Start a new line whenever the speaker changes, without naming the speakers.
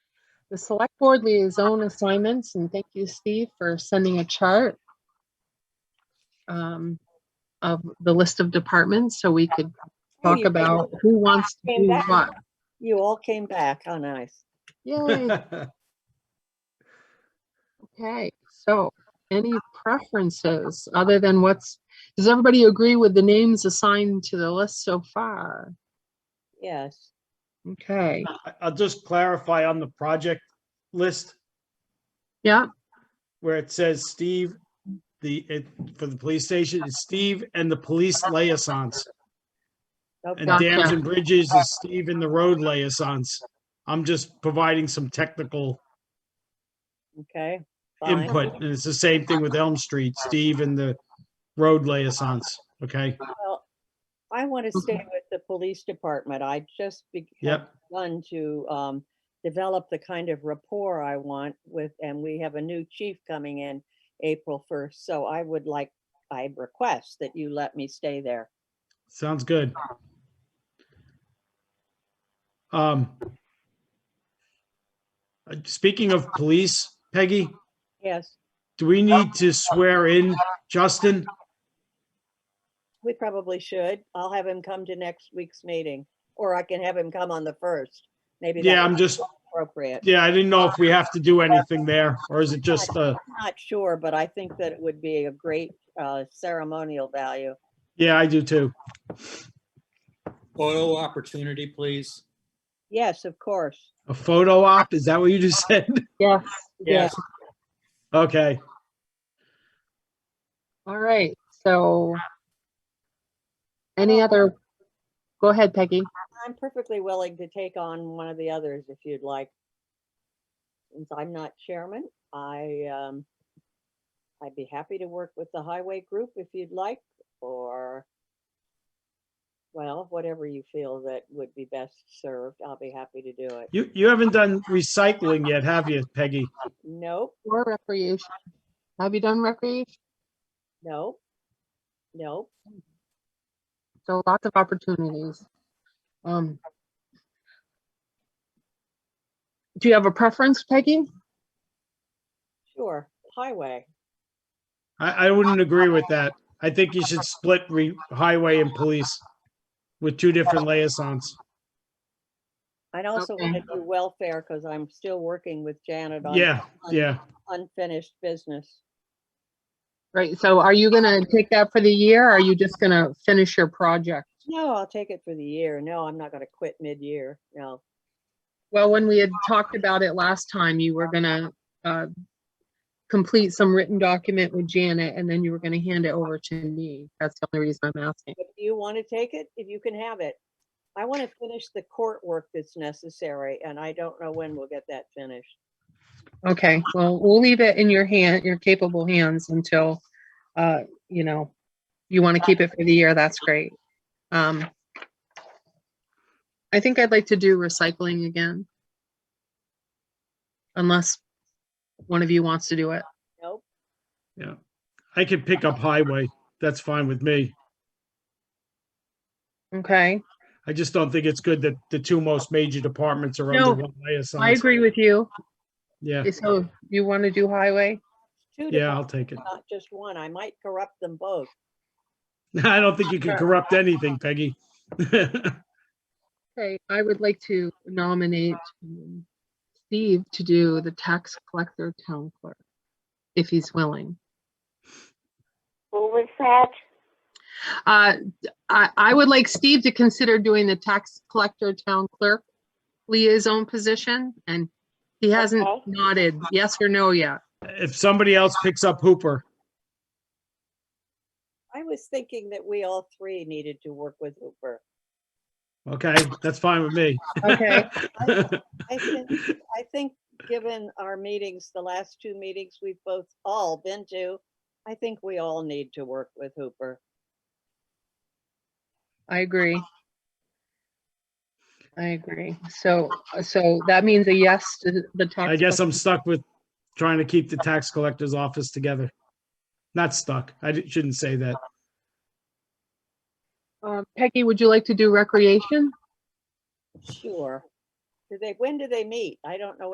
the select board liaison assignments, and thank you, Steve, for sending a chart um, of the list of departments, so we could talk
you.
about who wants to
Came
do
back.
what.
You all came back. How nice.
Yay, okay, so any preferences other than what's, does everybody agree with the names assigned to the list so far?
Yes.
Okay,
I- I'll just clarify on the project list
yeah,
where it says Steve, the, it, for the police station, it's Steve and the police liaisons. And
Okay.
Gotcha.
dams and bridges is Steve and the road liaisons. I'm just providing some technical
Okay. Fine.
input. And it's the same thing with Elm Street, Steve and the road liaisons, okay?
Well, I want to stay with the police department. I just be- have
Yep,
begun to um, develop the kind of rapport I want with, and we have a new chief coming in April 1st. So I would like, I request that you let me stay there.
sounds good. Um, uh, speaking of police, Peggy,
Yes,
do we need to swear in Justin?
we probably should. I'll have him come to next week's meeting, or I can have him come on the 1st. Maybe
Yeah, I'm
that's
just,
appropriate.
yeah, I didn't know if we have to do anything there, or is it just, uh,
I'm Not sure, but I think that it would be a great uh, ceremonial value.
yeah, I do too.
Photo opportunity, please.
Yes, of course.
A photo op, is that what you just said?
yes.
Yes. Okay,
All right, so any other, go ahead, Peggy.
I'm perfectly willing to take on one of the others if you'd like. Since I'm not chairman, I, um, I'd be happy to work with the highway group if you'd like, or, well, whatever you feel that would be best served, I'll be happy to do it.
you, you haven't done recycling yet, have you, Peggy?
Nope,
Or recreation. Have you done recreation?
nope, nope.
So lots of opportunities. Um, Do you have a preference, Peggy?
Sure, highway.
I, I wouldn't agree with that. I think you should split re, highway and police with two different liaisons.
I'd also
Okay.
want to do welfare because I'm still working with Janet on
Yeah, yeah.
unfinished business.
Right, so are you gonna take that for the year? or Are you just gonna finish your project?
No, I'll take it for the year. No, I'm not gonna quit mid-year. No.
Well, when we had talked about it last time, you were gonna uh, complete some written document with Janet and then you were gonna hand it over to me. That's the only reason I'm asking.
If you want to take it, if you can have it. I want to finish the court work that's necessary and I don't know when we'll get that finished.
Okay, well, we'll leave it in your hand, your capable hands until, uh, you know, you want to keep it for the year, that's great. Um, I think I'd like to do recycling again. Unless one of you wants to do it.
Nope.
I could pick up highway. That's fine with me.
Okay,
I just don't think it's good that the two most major departments are
No,
under one liaison.
I agree with you.
Yeah,
So you want to do highway?
Two
yeah, I'll
departments,
take it.
not just one. I might corrupt them both.
I don't think you can corrupt anything, Peggy.
Okay, I would like to nominate um, Steve to do the tax collector town clerk, if he's willing.
Who was that?
Uh, I, I would like Steve to consider doing the tax collector town clerk liaison position, and he hasn't
Okay.
nodded yes or no yet.
If somebody else picks up Hooper,
I was thinking that we all three needed to work with Hooper.
okay, that's fine with me.
Okay.
I think, I think, given our meetings, the last two meetings we've both all been to, I think we all need to work with Hooper.
I agree. I agree. So, so that means a yes to the tax.
I guess I'm stuck with trying to keep the tax collector's office together. Not stuck. I di- shouldn't say that.
collector. Um, Peggy, would you like to do recreation?
Sure. Do they, when do they meet? I don't know